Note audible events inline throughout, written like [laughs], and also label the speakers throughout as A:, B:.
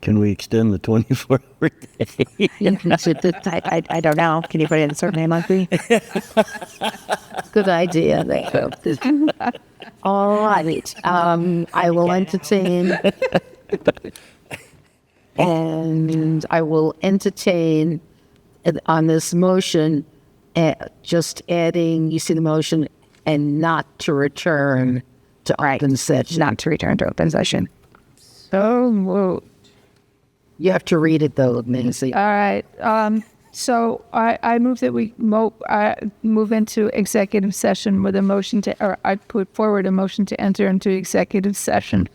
A: Can we extend the 24 hour [laughs] day?
B: [laughs] I, I, I don't know. Can you put in a surname like me?
C: Good idea. there. [laughs] All right. Um, I will [laughs] entertain. And I will entertain it on this motion, uh, just adding, you see the motion, and not to return to open session.
B: Not to return to open session.
D: So moved.
C: You have to read it though, Nancy.
D: All right. Um, so I, I move that we mo- I move into executive session with a motion to, or I put forward a motion to enter into executive session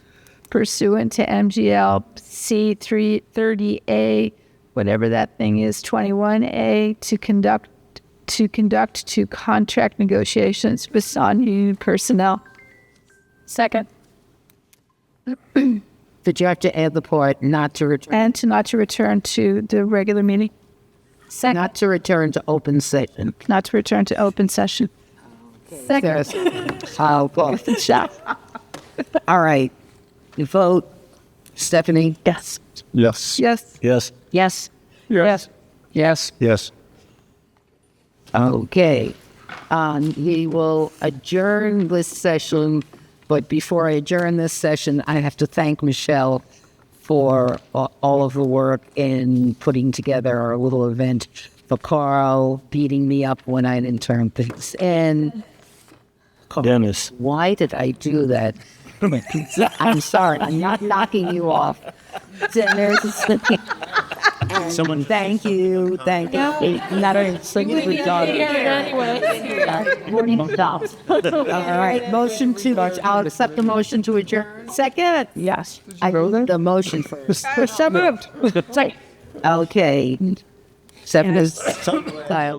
D: pursuant to MGL C three thirty A, whatever that thing is, twenty one A, to conduct to conduct to contract negotiations with non-union personnel. Second.
C: Did you have to add the part, not to return,
D: And to not to return to the regular meeting. Second.
C: not to return to open session?
D: not to return to open session.
C: Yes. Oh, boy. All right. You vote. Stephanie?
D: Yes.
E: Yes.
D: Yes.
A: Yes.
B: Yes.
D: Yes.
C: Yes.
E: Yes.
C: Okay. Um, he will adjourn this session, but before I adjourn this session, I have to thank Michelle for a- all of the work in putting together our little event, for Carl beating me up when I didn't turn things in.
A: Dennis.
C: Why did I do that? [laughs] I'm sorry. I'm not knocking you off. Dinners. [laughs] Someone. Thank you. Thank you. Not a single dollar. Forty dollars. All right. Motion to. I'll accept the motion to adjourn. Second.
D: Yes.
C: I need the motion first. [laughs]
D: So moved.
C: Okay. Seven is.